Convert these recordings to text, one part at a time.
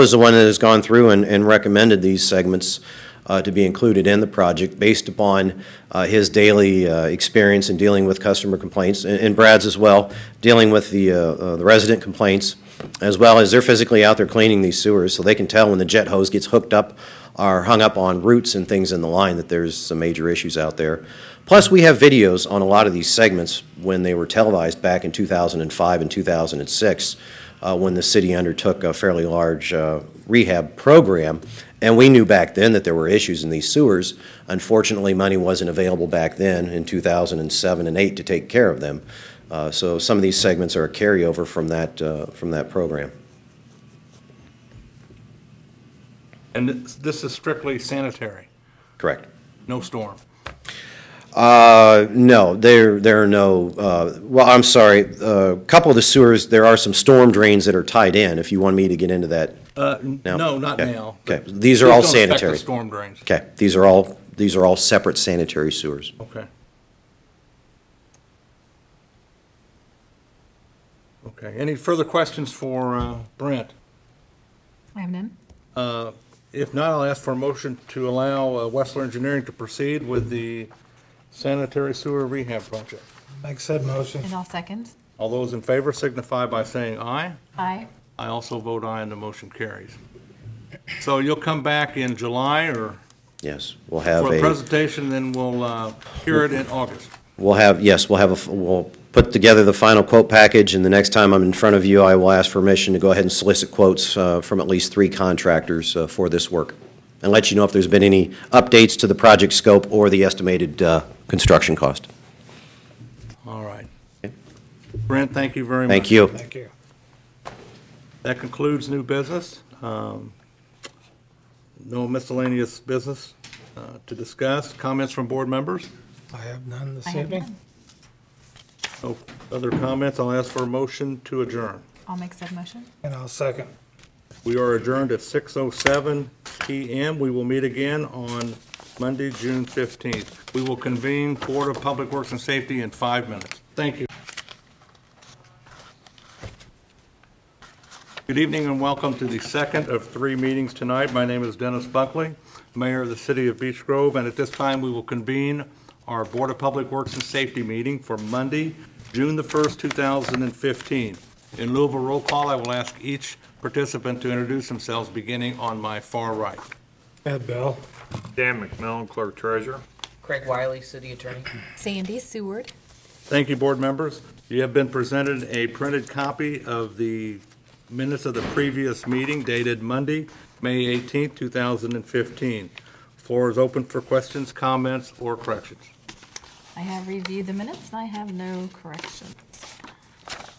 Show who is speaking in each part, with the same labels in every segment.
Speaker 1: was the one that has gone through and, and recommended these segments uh, to be included in the project based upon uh, his daily uh, experience in dealing with customer complaints, and- and Brad's as well, dealing with the, uh, uh, the resident complaints, as well as they're physically out there cleaning these sewers, so they can tell when the jet hose gets hooked up or hung up on roots and things in the line that there's some major issues out there. Plus, we have videos on a lot of these segments when they were televised back in 2005 and 2006, uh, when the city undertook a fairly large uh, rehab program. And we knew back then that there were issues in these sewers. Unfortunately, money wasn't available back then in 2007 and 8 to take care of them. Uh, So some of these segments are a carryover from that, uh, from that program.
Speaker 2: And this- this is strictly sanitary,
Speaker 1: Correct.
Speaker 2: no storm.
Speaker 1: Uh, no, there, there are no, uh, well, I'm sorry, a couple of the sewers, there are some storm drains that are tied in, if you want me to get into that.
Speaker 2: Uh, n-
Speaker 1: No.
Speaker 2: No, not
Speaker 1: Okay.
Speaker 2: now.
Speaker 1: Okay. These are all
Speaker 2: Please don't affect the
Speaker 1: sanitary.
Speaker 2: storm drains.
Speaker 1: Okay, these are all, these are all separate sanitary sewers.
Speaker 2: Okay. Okay, any further questions for uh, Brent?
Speaker 3: I have none.
Speaker 2: If not, I'll ask for a motion to allow uh, Westler Engineering to proceed with the sanitary sewer rehab project.
Speaker 4: Make said motion.
Speaker 3: And I'll second.
Speaker 2: All those in favor signify by saying aye.
Speaker 3: Aye.
Speaker 2: I also vote aye and the motion carries. So you'll come back in July or
Speaker 1: Yes, we'll have
Speaker 2: for a
Speaker 1: a,
Speaker 2: presentation, then we'll uh, hear it in August.
Speaker 1: we'll have, yes, we'll have a, f- we'll put together the final quote package, and the next time I'm in front of you, I will ask permission to go ahead and solicit quotes uh, from at least three contractors uh, for this work, and let you know if there's been any updates to the project scope or the estimated uh, construction cost.
Speaker 2: All right. Brent, thank you very much.
Speaker 1: Thank you.
Speaker 4: Thank you.
Speaker 2: That concludes new business. Um, No miscellaneous business uh, to discuss. Comments from board members?
Speaker 4: I have none this
Speaker 3: I have
Speaker 4: evening.
Speaker 2: No
Speaker 3: none.
Speaker 2: other comments? I'll ask for a motion to adjourn.
Speaker 3: I'll make said motion.
Speaker 4: And I'll second.
Speaker 2: We are adjourned at 6:07 PM. We will meet again on Monday, June 15th. We will convene Board of Public Works and Safety in five minutes. Thank you. Good evening and welcome to the second of three meetings tonight. My name is Dennis Buckley, Mayor of the City of Beech Grove, and at this time, we will convene our Board of Public Works and Safety meeting for Monday, June the 1st, 2015. In lieu of a roll call, I will ask each participant to introduce themselves, beginning on my far right.
Speaker 4: Ed Bell.
Speaker 5: Dan McMillan, Clerk Treasurer.
Speaker 6: Craig Wiley, City Attorney.
Speaker 3: Sandy Seward.
Speaker 2: Thank you, board members. You have been presented a printed copy of the minutes of the previous meeting dated Monday, May 18, 2015. Floor is open for questions, comments, or corrections.
Speaker 3: I have reviewed the minutes and I have no corrections.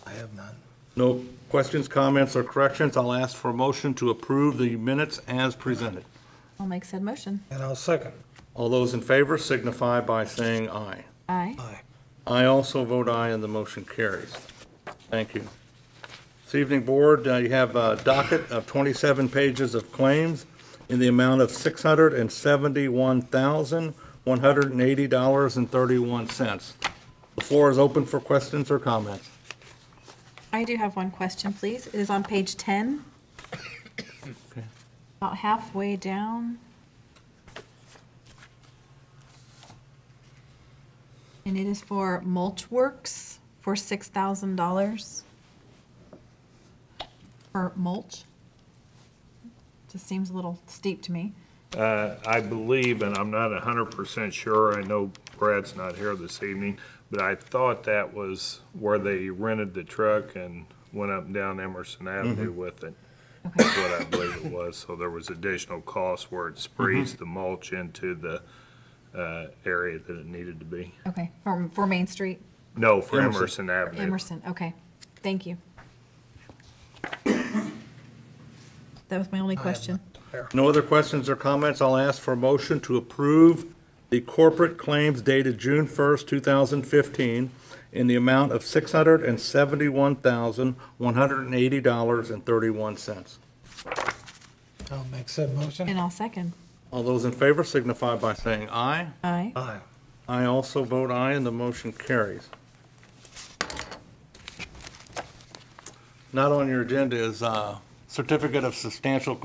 Speaker 4: I have none.
Speaker 2: No questions, comments, or corrections. I'll ask for a motion to approve the minutes as presented.
Speaker 3: I'll make said motion.
Speaker 4: And I'll second.
Speaker 2: All those in favor signify by saying aye.
Speaker 3: Aye.
Speaker 4: Aye.
Speaker 2: I also vote aye, and the motion carries. Thank you. This evening, Board, uh, you have a docket of 27 pages of claims in the amount of $671,180.31. The floor is open for questions or comments.
Speaker 3: I do have one question, please. It is on page 10. About halfway down. And it is for mulch works for $6,000 for mulch. Just seems a little steep to me.
Speaker 5: Uh, I believe, and I'm not hundred percent sure, I know Brad's not here this evening, but I thought that was where they rented the truck and went up and down Emerson Avenue with it. That's what I believe it was. So there was additional cost where it sprees the mulch into the, uh, area that it needed to be.
Speaker 3: Okay, for, for Main Street,
Speaker 5: No, for
Speaker 2: Emerson.
Speaker 5: Emerson Avenue.
Speaker 3: Emerson, okay, thank you. That was my only question.
Speaker 2: No other questions or comments, I'll ask for a motion to approve the corporate claims dated June 1st, 2015, in the amount of $671,180.31.
Speaker 4: I'll make said motion.
Speaker 3: And I'll second.
Speaker 2: All those in favor signify by saying aye.
Speaker 3: Aye.
Speaker 4: Aye.
Speaker 2: I also vote aye, and the motion carries. Not on your agenda is uh, certificate of substantial